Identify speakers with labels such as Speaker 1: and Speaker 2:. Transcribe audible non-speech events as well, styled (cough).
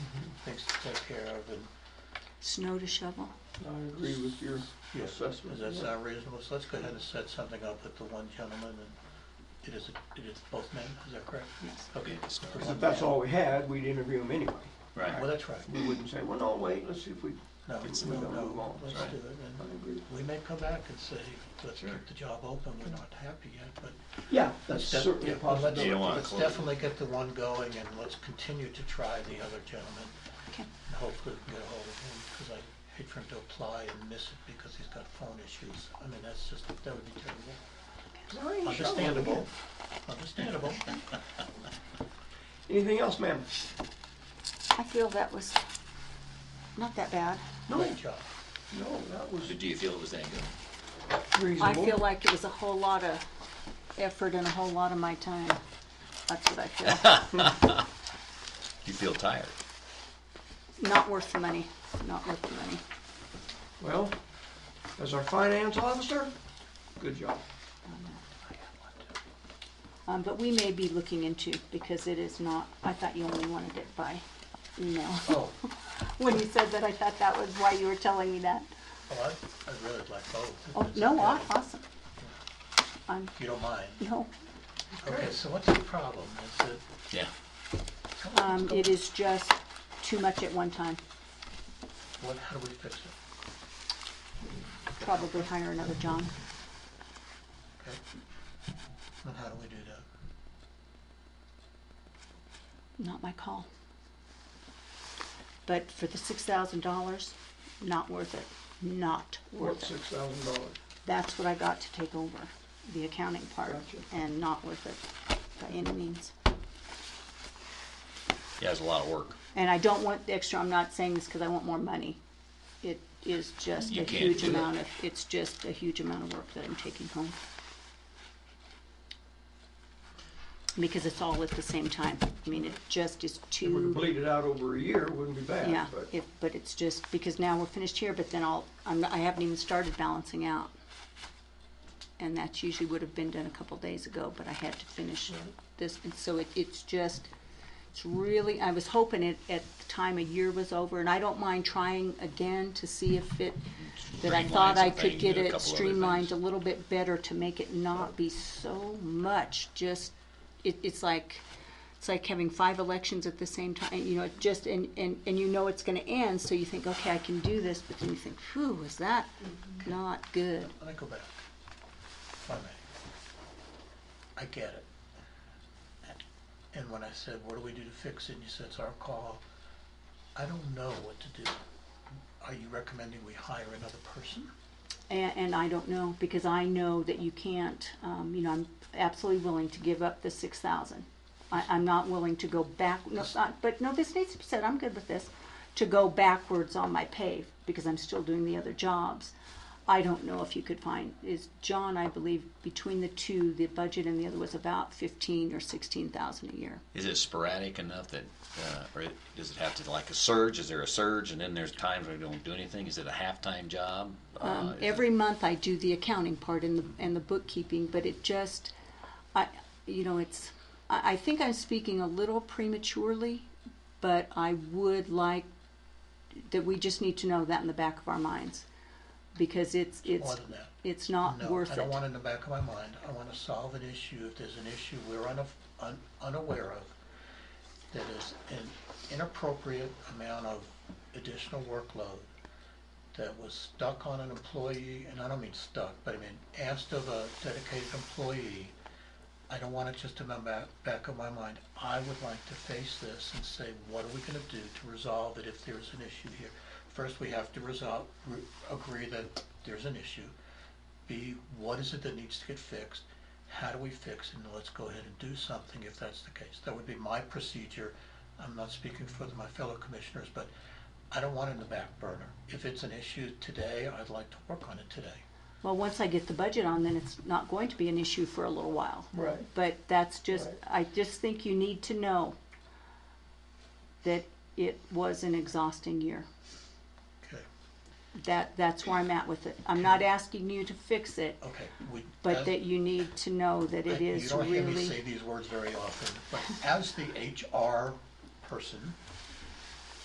Speaker 1: things to take care of, and,
Speaker 2: Snow to shovel.
Speaker 3: I agree with your
Speaker 1: yes, does
Speaker 3: assessment.
Speaker 1: that
Speaker 3: yeah.
Speaker 1: sound reasonable? So let's go ahead and set something up with the one gentleman, and it is, it is both men, is that correct?
Speaker 2: Yes.
Speaker 1: Okay.
Speaker 3: If that's all we had, we'd interview him anyway.
Speaker 1: Well, that's right.
Speaker 3: We wouldn't say, well, no, wait, let's see if we,
Speaker 1: No,
Speaker 3: It's
Speaker 1: no,
Speaker 3: not gonna move
Speaker 1: no,
Speaker 3: on,
Speaker 1: let's
Speaker 3: right.
Speaker 1: do it,
Speaker 3: I
Speaker 1: and
Speaker 3: agree.
Speaker 1: we may come back and say, let's
Speaker 4: Sure.
Speaker 1: keep the job open, we're not happy yet, but
Speaker 3: Yeah, that's
Speaker 1: let's def-
Speaker 3: certainly
Speaker 1: yeah,
Speaker 3: a
Speaker 1: well, let's-
Speaker 3: possibility.
Speaker 4: Yeah, why?
Speaker 1: Let's definitely get the one going, and let's continue to try the other gentleman,
Speaker 2: Okay.
Speaker 1: and hopefully we can get a hold of him, because I hate for him to apply and miss it because he's got phone issues. I mean, that's just, that would be terrible. Understandable, understandable.
Speaker 3: Anything else, ma'am?
Speaker 2: I feel that was not that bad.
Speaker 3: No,
Speaker 1: Great job.
Speaker 3: no, that was
Speaker 4: So do you feel it was that good?
Speaker 2: I feel
Speaker 3: reasonable.
Speaker 2: like it was a whole lot of effort and a whole lot of my time. That's what I feel.
Speaker 4: You feel tired?
Speaker 2: Not worth the money, not worth the money.
Speaker 3: Well, as our finance officer, good job.
Speaker 2: Um, but we may be looking into, because it is not, I thought you only wanted it by email. (laughs)
Speaker 1: Oh,
Speaker 2: When you said that, I thought that was why you were telling me that.
Speaker 1: well, I'd, I'd really like both. if
Speaker 2: Oh,
Speaker 1: it's
Speaker 2: no,
Speaker 1: okay.
Speaker 2: aw- awesome. I'm,
Speaker 1: If you don't mind.
Speaker 2: no,
Speaker 1: Okay, so what's the problem? Is it?
Speaker 4: Yeah.
Speaker 1: tell us
Speaker 2: um,
Speaker 1: what's
Speaker 2: it
Speaker 1: going-
Speaker 2: is just too much at one time.
Speaker 1: What, how do we fix it?
Speaker 2: Probably hire another John.
Speaker 1: Okay? And how do we do that?
Speaker 2: Not my call. But for the six thousand dollars, not worth it, not
Speaker 3: Worth
Speaker 2: worth it.
Speaker 3: six thousand dollars.
Speaker 2: That's what I got to take over, the accounting part,
Speaker 3: Gotcha.
Speaker 2: and not worth it by any means.
Speaker 4: Yeah, it's a lot of work.
Speaker 2: And I don't want the extra, I'm not saying this because I want more money. It is just
Speaker 4: You
Speaker 2: a
Speaker 4: can't
Speaker 2: huge
Speaker 4: do it.
Speaker 2: amount of, it's just a huge amount of work that I'm taking home. Because it's all at the same time. I mean, it just is
Speaker 3: If we could
Speaker 2: too,
Speaker 3: bleed it out over a year, it wouldn't be
Speaker 2: yeah,
Speaker 3: bad, but
Speaker 2: if, but it's just, because now we're finished here, but then I'll, I'm, I haven't even started balancing out. And that usually would have been done a couple days ago, but I had to finish this, and so it, it's just, it's really, I was hoping it at the time a year was over, and I don't mind trying again to see if it, that I
Speaker 4: Streamline
Speaker 2: thought I
Speaker 4: some
Speaker 2: could
Speaker 4: things,
Speaker 2: get
Speaker 4: do a
Speaker 2: it
Speaker 4: couple other
Speaker 2: streamlined a
Speaker 4: things.
Speaker 2: little bit better to make it not be so much, just, it, it's like, it's like having five elections at the same time, you know, it just, and, and, and you know it's gonna end, so you think, okay, I can do this, but then you think, whew, was that not good?
Speaker 1: Let me go back. If I may. I get it. And when I said, what do we do to fix it, and you said it's our call, I don't know what to do. Are you recommending we hire another person?
Speaker 2: And, and I don't know, because I know that you can't, um, you know, I'm absolutely willing to give up the six thousand. I, I'm not willing to go back, no, not, but no, this needs to be said, I'm good with this, to go backwards on my pay, because I'm still doing the other jobs. I don't know if you could find, is John, I believe, between the two, the budget and the other was about fifteen or sixteen thousand a year.
Speaker 4: Is it sporadic enough that, uh, or it- does it have to like a surge? Is there a surge and then there's times where you don't do anything? Is it a halftime job? Uh,
Speaker 2: Um,
Speaker 4: is
Speaker 2: every
Speaker 4: it-
Speaker 2: month I do the accounting part and the, and the bookkeeping, but it just, I, you know, it's, I, I think I'm speaking a little prematurely, but I would like, that we just need to know that in the back of our minds. Because it's,
Speaker 1: More
Speaker 2: it's,
Speaker 1: than that.
Speaker 2: it's not
Speaker 1: No,
Speaker 2: worth
Speaker 1: I
Speaker 2: it.
Speaker 1: don't want it in the back of my mind. I want to solve an issue, if there's an issue we're unaf- un- unaware of, that is an inappropriate amount of additional workload that was stuck on an employee, and I don't mean stuck, but I mean asked of a dedicated employee. I don't want it just in the back, back of my mind. I would like to face this and say, what are we gonna do to resolve it if there's an issue here? First, we have to resolve, re- agree that there's an issue. B, what is it that needs to get fixed? How do we fix it? And let's go ahead and do something if that's the case. That would be my procedure. I'm not speaking for my fellow commissioners, but I don't want it in the back burner. If it's an issue today, I'd like to work on it today.
Speaker 2: Well, once I get the budget on, then it's not going to be an issue for a little while.
Speaker 3: Right.
Speaker 2: But that's just,
Speaker 3: Right.
Speaker 2: I just think you need to know that it was an exhausting year.
Speaker 1: Okay,
Speaker 2: That, that's where I'm at with it. I'm not asking you to fix it,
Speaker 1: okay. we-
Speaker 2: but
Speaker 1: as-
Speaker 2: that you need to know that it
Speaker 1: I-
Speaker 2: is
Speaker 1: You don't hear me
Speaker 2: really,
Speaker 1: say these words very often, but as the HR person,